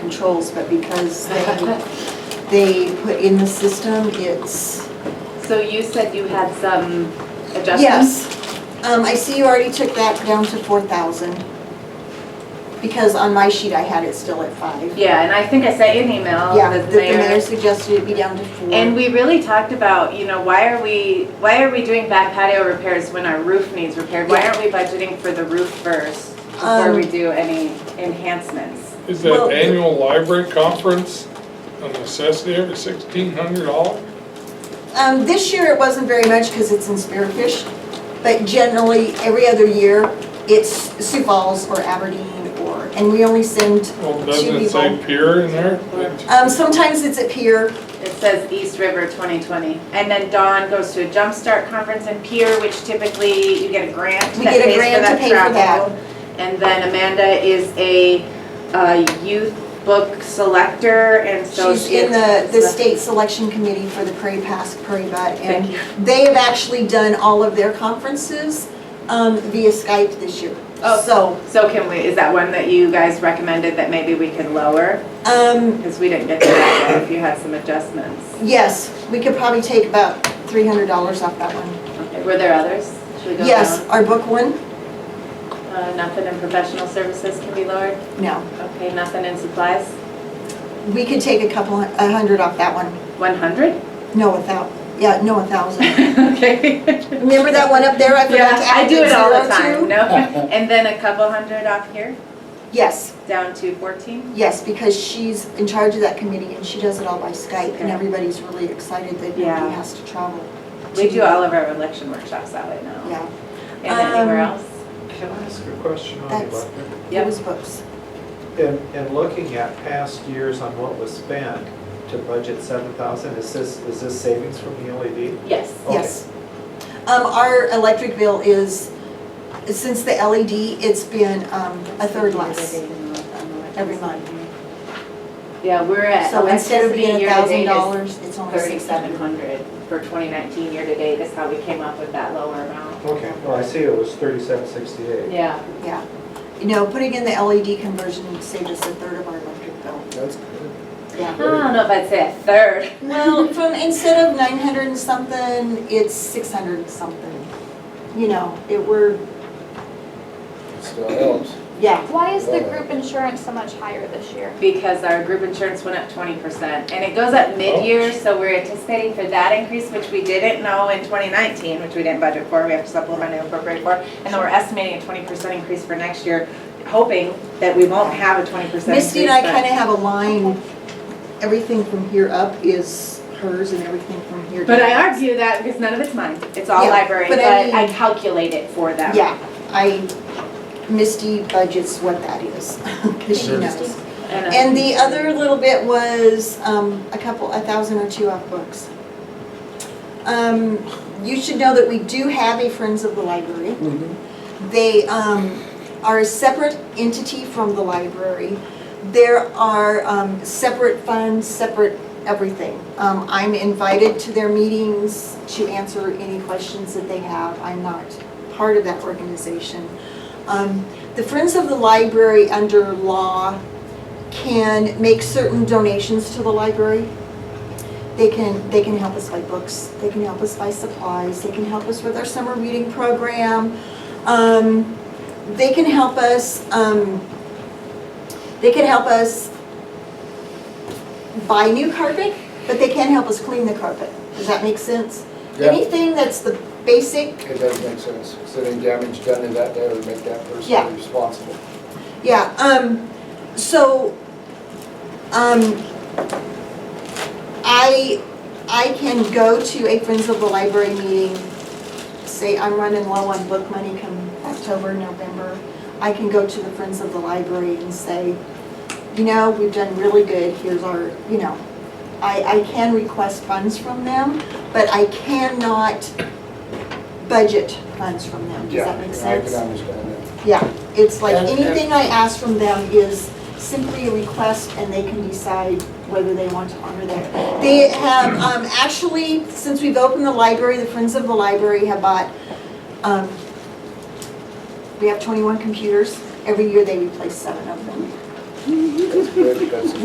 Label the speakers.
Speaker 1: controls, but because they, they put in the system, it's,
Speaker 2: So you said you had some adjustments?
Speaker 1: yes. Um, I see you already took that down to four thousand. Because on my sheet, I had it still at five.
Speaker 2: Yeah, and I think I sent you an email,
Speaker 1: Yeah,
Speaker 2: Oh, the
Speaker 1: the the mayor
Speaker 2: mayor.
Speaker 1: suggested it be down to four.
Speaker 2: And we really talked about, you know, why are we, why are we doing back patio repairs when our roof needs repaired? Why
Speaker 1: Yeah.
Speaker 2: aren't we budgeting for the roof first before
Speaker 1: Um,
Speaker 2: we do any enhancements?
Speaker 3: Is
Speaker 1: Well-
Speaker 3: that annual library conference a necessity every sixteen hundred dollars?
Speaker 1: Um, this year it wasn't very much because it's in Spearfish, but generally, every other year, it's Sioux Falls or Aberdeen or, and we only send,
Speaker 3: Well,
Speaker 1: Should
Speaker 3: doesn't
Speaker 1: be
Speaker 3: it say
Speaker 1: both.
Speaker 3: pier in there?
Speaker 1: um, sometimes it's at Pier.
Speaker 2: It says East River 2020. And then Dawn goes to a Jumpstart Conference in Pier, which typically you get a grant
Speaker 1: We
Speaker 2: that
Speaker 1: get a
Speaker 2: pays for
Speaker 1: grant to
Speaker 2: that
Speaker 1: pay for
Speaker 2: travel.
Speaker 1: that.
Speaker 2: And then Amanda is a uh, youth book selector, and so
Speaker 1: She's
Speaker 2: she
Speaker 1: in the, the
Speaker 2: is
Speaker 1: state selection committee for the Prairie Pass, Prairie Butt,
Speaker 2: Thank
Speaker 1: and they have actually done all of their conferences, um, via Skype this year.
Speaker 2: Oh.
Speaker 1: So,
Speaker 2: So can we, is that one that you guys recommended that maybe we could lower?
Speaker 1: um,
Speaker 2: Because we didn't get to that one, if you had some adjustments.
Speaker 1: yes, we could probably take about three hundred dollars off that one.
Speaker 2: Okay, Were there others? Should we go
Speaker 1: Yes,
Speaker 2: down?
Speaker 1: our book one,
Speaker 2: Uh, Nothing in professional services can be lowered?
Speaker 1: no.
Speaker 2: Okay, nothing in supplies?
Speaker 1: We could take a couple, hun- a hundred off that one.
Speaker 2: 100?
Speaker 1: No, a thou, yeah, no, a thousand.
Speaker 2: Okay.
Speaker 1: Remember that one up there? I forgot
Speaker 2: Yeah,
Speaker 1: to
Speaker 2: I
Speaker 1: add
Speaker 2: do it all
Speaker 1: the
Speaker 2: the time,
Speaker 1: zero to?
Speaker 2: no? And then a couple hundred off here,
Speaker 1: Yes,
Speaker 2: down to 14?
Speaker 1: yes, because she's in charge of that committee and she does it all by Skype and
Speaker 2: Okay.
Speaker 1: everybody's really excited that
Speaker 2: Yeah.
Speaker 1: nobody has to travel.
Speaker 2: We do all of our election workshops that way now.
Speaker 1: Yeah,
Speaker 2: And anywhere
Speaker 1: Um,
Speaker 2: else?
Speaker 4: Can I ask a question on
Speaker 1: That's-
Speaker 4: electric?
Speaker 1: it
Speaker 2: Yep.
Speaker 1: was books.
Speaker 4: And, and looking at past years on what was spent to budget seven thousand, is this, is this savings from the E LED?
Speaker 2: Yes.
Speaker 4: Okay.
Speaker 1: Yes. Um, our electric bill is, since the LED, it's been, um, a third less. Every month.
Speaker 2: Yeah, we're at
Speaker 1: So instead of
Speaker 2: electricity
Speaker 1: being a thousand
Speaker 2: year-to-date is
Speaker 1: dollars, it's only six
Speaker 2: thirty-seven
Speaker 1: hundred.
Speaker 2: hundred for twenty nineteen year-to-date, that's how we came up with that lower amount.
Speaker 4: Okay, well, I see it was thirty-seven sixty-eight.
Speaker 2: Yeah,
Speaker 1: Yeah. You know, putting in the LED conversion saved us a third of our electric bill.
Speaker 4: That's
Speaker 2: I
Speaker 4: good.
Speaker 1: Yeah.
Speaker 2: don't know if I'd say a third.
Speaker 1: Well, from, instead of nine hundred and something, it's six hundred and something. You know, it were,
Speaker 5: Still helps.
Speaker 1: yeah,
Speaker 6: Why is the group insurance so much higher this year?
Speaker 2: Because our group insurance went up twenty percent, and it goes up mid-year, so we're anticipating for that increase, which we didn't know in twenty nineteen, which we didn't budget for, we have to supplement and appropriate for, and then we're estimating a twenty percent increase for next year, hoping that we won't have a twenty percent increase.
Speaker 1: Misty and I
Speaker 2: but-
Speaker 1: kinda have a line, everything from here up is hers and everything from here down.
Speaker 2: But I argue that because none of it's mine, it's all
Speaker 1: Yeah,
Speaker 2: library,
Speaker 1: but
Speaker 2: but
Speaker 1: I
Speaker 2: I
Speaker 1: mean-
Speaker 2: calculate it for them.
Speaker 1: Yeah, I, Misty budgets what that is, cause she knows.
Speaker 2: And, uh,
Speaker 1: And the other little bit was, um, a couple, a thousand or two off books. Um, you should know that we do have a Friends of the Library. They um, are a separate entity from the library. There are um, separate funds, separate everything. Um, I'm invited to their meetings to answer any questions that they have. I'm not part of that organization. Um, The Friends of the Library, under law, can make certain donations to the library. They can, they can help us buy books, they can help us buy supplies, they can help us with our summer reading program. Um, They can help us, um, they can help us buy new carpet, but they can't help us clean the carpet. Does that make sense?
Speaker 5: Yeah.
Speaker 1: Anything that's the basic
Speaker 5: It does make sense, because any damage done to that, that would make that
Speaker 1: Yeah.
Speaker 5: person responsible.
Speaker 1: Yeah, um, so, um, I, I can go to a Friends of the Library meeting, say I'm running low on book money come October, November. I can go to the Friends of the Library and say, you know, we've done really good, here's our, you know. I, I can request funds from them, but I cannot budget funds from them, does that make
Speaker 5: I
Speaker 1: sense?
Speaker 5: can understand that.
Speaker 1: Yeah, it's like
Speaker 5: And- and-
Speaker 1: anything I ask from them is simply a request and they can decide whether they want to honor that. They have, um, actually, since we've opened the library, the Friends of the Library have bought, um, we have twenty-one computers. Every year they replace seven of them.
Speaker 5: That's good, that's